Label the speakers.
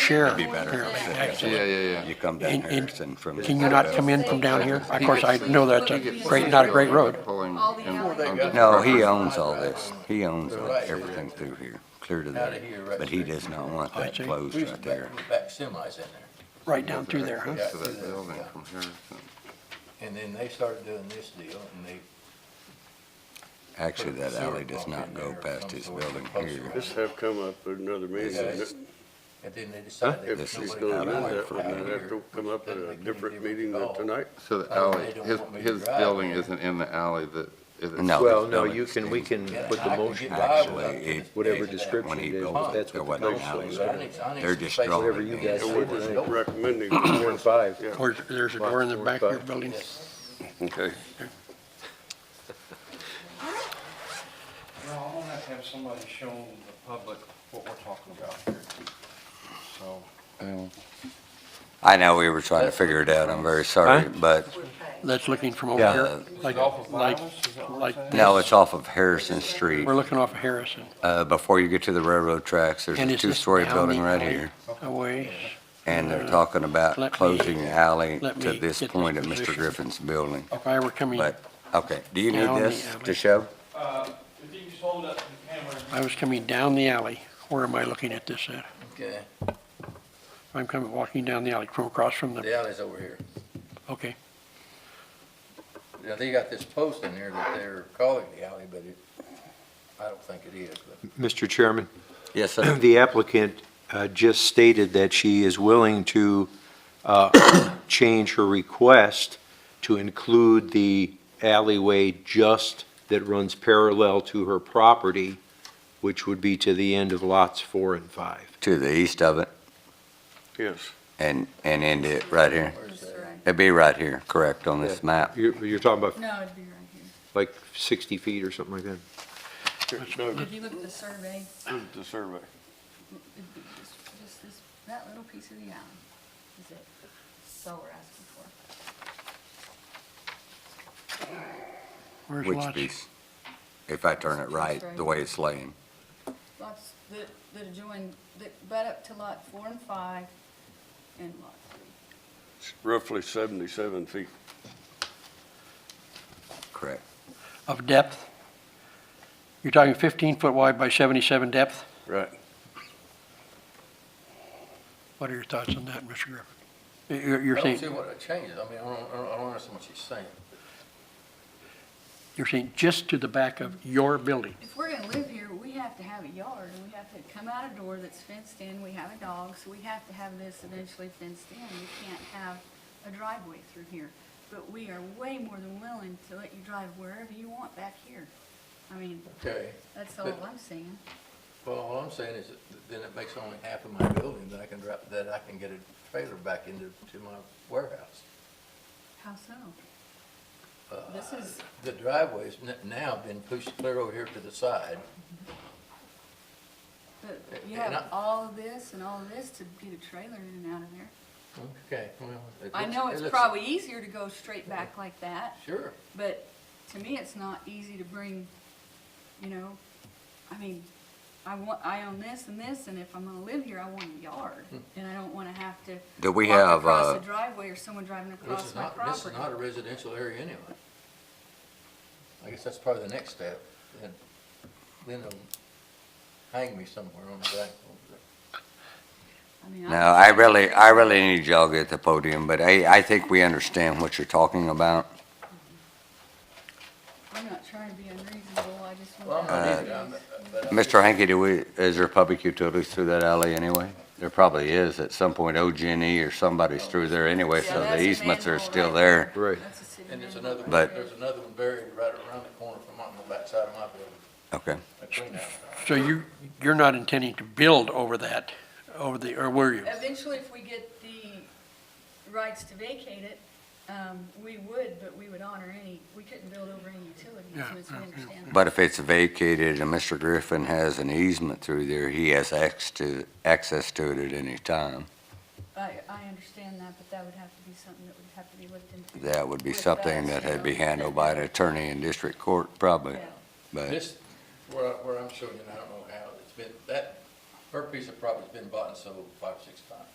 Speaker 1: share.
Speaker 2: Be better.
Speaker 1: here.
Speaker 3: Yeah, yeah, yeah.
Speaker 2: You come down
Speaker 1: And- and
Speaker 2: Harrison from.
Speaker 1: Can you not come in from down here? Of course, I know that's
Speaker 3: He
Speaker 1: a
Speaker 3: gets-
Speaker 1: great, not a great road.
Speaker 3: Pulling
Speaker 4: All the
Speaker 3: in-
Speaker 4: alleys.
Speaker 3: on the
Speaker 2: No,
Speaker 3: property.
Speaker 2: he uh, owns all this. He owns everything through here, clear to that. But he does not want that
Speaker 1: see.
Speaker 2: closed
Speaker 5: We used
Speaker 2: right
Speaker 5: to
Speaker 2: there.
Speaker 5: back, we back semis in there,
Speaker 1: Right down through there, huh?
Speaker 3: To that building from Harrison.
Speaker 5: and then they started doing this deal, and they.
Speaker 2: Actually, that
Speaker 5: Sewer
Speaker 2: alley does
Speaker 5: pump
Speaker 2: not
Speaker 5: in
Speaker 2: go
Speaker 5: there or
Speaker 2: past
Speaker 5: some
Speaker 2: his
Speaker 5: sort of
Speaker 2: building
Speaker 5: post
Speaker 2: here.
Speaker 6: This have come up at another meeting.
Speaker 5: Yes. And then they decided.
Speaker 6: If
Speaker 5: that
Speaker 2: This
Speaker 6: she's
Speaker 2: is
Speaker 5: nobody
Speaker 2: not
Speaker 6: gonna do
Speaker 5: could
Speaker 2: allowed
Speaker 6: that,
Speaker 2: for
Speaker 6: we're gonna
Speaker 5: here.
Speaker 6: have to come up at a different meeting
Speaker 5: Oh.
Speaker 6: than tonight.
Speaker 3: So the
Speaker 5: Oh,
Speaker 3: alley,
Speaker 5: they don't
Speaker 3: his,
Speaker 5: want me to
Speaker 3: his
Speaker 5: drive.
Speaker 3: building isn't in the alley that. is it?
Speaker 2: No.
Speaker 7: Well,
Speaker 2: this
Speaker 7: no,
Speaker 2: building
Speaker 7: you can, we can
Speaker 2: extends.
Speaker 5: Yeah,
Speaker 7: put
Speaker 5: I
Speaker 7: the
Speaker 5: could
Speaker 7: motion,
Speaker 5: get by
Speaker 2: Actually,
Speaker 5: without
Speaker 2: it-
Speaker 5: this
Speaker 7: whatever
Speaker 5: big-
Speaker 7: description
Speaker 2: When he
Speaker 7: it is,
Speaker 2: built
Speaker 7: but
Speaker 2: it,
Speaker 7: that's
Speaker 2: there
Speaker 7: what
Speaker 2: wasn't
Speaker 7: the
Speaker 2: an
Speaker 7: council
Speaker 2: alley.
Speaker 5: I
Speaker 7: is.
Speaker 5: need- I need
Speaker 2: They're
Speaker 5: some
Speaker 2: just
Speaker 5: space.
Speaker 2: drawing
Speaker 7: Whatever you
Speaker 2: it
Speaker 7: guys
Speaker 2: in.
Speaker 6: And we're just
Speaker 7: Nope.
Speaker 6: recommending.
Speaker 7: Four and five.
Speaker 6: Yeah.
Speaker 1: Or there's a door in the back of your building.
Speaker 6: Okay.
Speaker 8: No, I'm gonna have to have somebody show the public what we're talking about here. So,
Speaker 2: I know we were trying to figure it out. I'm very sorry, but
Speaker 1: That's looking from
Speaker 2: Yeah.
Speaker 1: over here, like,
Speaker 8: off of
Speaker 1: like,
Speaker 8: Bibles, is that what
Speaker 1: like
Speaker 8: you're saying?
Speaker 2: no, it's off of Harrison Street.
Speaker 1: we're looking off of Harrison.
Speaker 2: Uh, before you get to the railroad tracks, there's
Speaker 1: And
Speaker 2: a
Speaker 1: is this
Speaker 2: two-story
Speaker 1: down
Speaker 2: building
Speaker 1: the
Speaker 2: right
Speaker 1: alley?
Speaker 2: here.
Speaker 1: A ways.
Speaker 2: And they're talking about
Speaker 1: Uh, Let me-
Speaker 2: closing the alley
Speaker 1: let
Speaker 2: to
Speaker 1: me
Speaker 2: this
Speaker 1: get the
Speaker 2: point of Mr.
Speaker 1: position.
Speaker 2: Griffin's building.
Speaker 1: If I were coming,
Speaker 2: But, okay, do you need
Speaker 1: Down the
Speaker 2: this
Speaker 1: alley.
Speaker 2: to show?
Speaker 8: uh, if you just hold up to the camera.
Speaker 1: I was coming down the alley, where am I looking at this at?
Speaker 5: Okay,
Speaker 1: I'm coming, walking down the alley from across from the,
Speaker 5: the alley's over here.
Speaker 1: okay.
Speaker 5: Now, they got this post in here that they're calling the alley, but it, I don't think it is, but.
Speaker 7: Mr. Chairman,
Speaker 2: Yes, sir.
Speaker 7: the applicant uh, just stated that she is willing to uh, change her request to include the alleyway just that runs parallel to her property, which would be to the end of lots four and five.
Speaker 2: To the east of it
Speaker 6: Yes.
Speaker 2: and, and end it right here.
Speaker 4: Just right-
Speaker 2: It'd be right here, correct, on this map.
Speaker 7: You're, you're talking about
Speaker 4: No, it'd be right here.
Speaker 7: like 60 feet or something like that?
Speaker 6: No,
Speaker 4: If you look at the survey,
Speaker 6: this is the survey.
Speaker 4: it'd be just, just this, that little piece of the island is it. That's all we're asking for.
Speaker 1: Where's
Speaker 2: Which
Speaker 1: lots?
Speaker 2: piece? If I turn it right, the way it's laying.
Speaker 4: Lots that, that adjoin, that butt up to lot four and five and lot three.
Speaker 6: It's Roughly seventy-seven feet.
Speaker 2: Correct.
Speaker 1: Of depth? You're talking fifteen foot wide by seventy-seven depth?
Speaker 6: Right.
Speaker 1: What are your thoughts on that, Mr. Griffin? You're, you're
Speaker 5: I don't see
Speaker 1: saying,
Speaker 5: what it changes, I mean, I don't, I don't- I don't understand what she's saying.
Speaker 1: you're saying just to the back of your building?
Speaker 4: If we're gonna live here, we have to have a yard, and we have to come out a door that's fenced in, we have a dog, so we have to have this eventually fenced in. We can't have a driveway through here, but we are way more than willing to let you drive wherever you want back here. I mean,
Speaker 5: Okay,
Speaker 4: that's all I'm saying.
Speaker 5: well, all I'm saying is that then it makes only half of my building that I can drop, that I can get a trailer back into, to my warehouse.
Speaker 4: How so?
Speaker 5: Uh,
Speaker 4: This is,
Speaker 5: The driveway's n- now been pushed clear over here to the side,
Speaker 4: but you
Speaker 5: And
Speaker 4: have
Speaker 5: I-
Speaker 4: all of this and all of this to get a trailer in and out of there.
Speaker 5: okay, well. it
Speaker 4: I
Speaker 5: looks-
Speaker 4: know
Speaker 5: it
Speaker 4: it's
Speaker 5: looks-
Speaker 4: probably easier to go straight back like that,
Speaker 5: Sure,
Speaker 4: But to me, it's not easy to bring, you know, I mean, I want, I own this and this, and if I'm gonna live here, I want a yard.
Speaker 5: Hmm.
Speaker 4: And I don't wanna have to
Speaker 2: Do we
Speaker 4: walk
Speaker 2: have,
Speaker 4: across
Speaker 2: uh,
Speaker 4: a driveway or someone driving
Speaker 5: this
Speaker 4: across
Speaker 5: is
Speaker 4: my
Speaker 5: not, this is
Speaker 4: property.
Speaker 5: not a residential area anyway. I guess that's probably the next step, then, then they'll hang me somewhere on the back.
Speaker 4: I mean,
Speaker 2: No,
Speaker 4: I'm-
Speaker 2: I really, I really need y'all to get the podium, but I, I think we understand what you're talking about.
Speaker 4: I'm not trying to be unreasonable, I just
Speaker 5: Well, I'm
Speaker 4: want to.
Speaker 5: not
Speaker 4: have
Speaker 5: either, I'm-
Speaker 4: these-
Speaker 2: Uh,
Speaker 5: but uh, I'm-
Speaker 2: Mr. Hankey, do we, is there public utilities through that alley anyway? There probably is. At some point, OG&E E or somebody's through there anyway,
Speaker 4: Yeah,
Speaker 2: so
Speaker 4: that's
Speaker 2: the
Speaker 4: a
Speaker 2: easements are
Speaker 4: manhole
Speaker 2: still
Speaker 4: right
Speaker 2: there.
Speaker 7: Right.
Speaker 4: That's a city
Speaker 5: And there's
Speaker 4: manhole.
Speaker 5: another, one-
Speaker 2: But-
Speaker 5: there's another one buried right around the corner from on the backside of my building,
Speaker 2: Okay.
Speaker 5: a clean out.
Speaker 1: So you, you're not intending to build over that, over the, or were you?
Speaker 4: Eventually, if we get the rights to vacate it, um, we would, but we would honor any, we couldn't build over any utilities,
Speaker 1: Yeah,
Speaker 4: as we
Speaker 1: yeah, yeah.
Speaker 4: understand. that.
Speaker 2: But if it's vacated and Mr. Griffin has an easement through there, he has access to, access to it at any time.
Speaker 4: I, I understand that, but that would have to be something that would have to be looked into.
Speaker 2: That would be
Speaker 4: With
Speaker 2: something
Speaker 4: us,
Speaker 2: that
Speaker 4: you
Speaker 2: had to be
Speaker 4: know.
Speaker 2: handled by an attorney in district court, probably,
Speaker 4: Yeah.
Speaker 2: but.
Speaker 5: This, where, I- where I'm showing you, and I don't know how, it's been, that her piece of property's been bought and sold five, six times.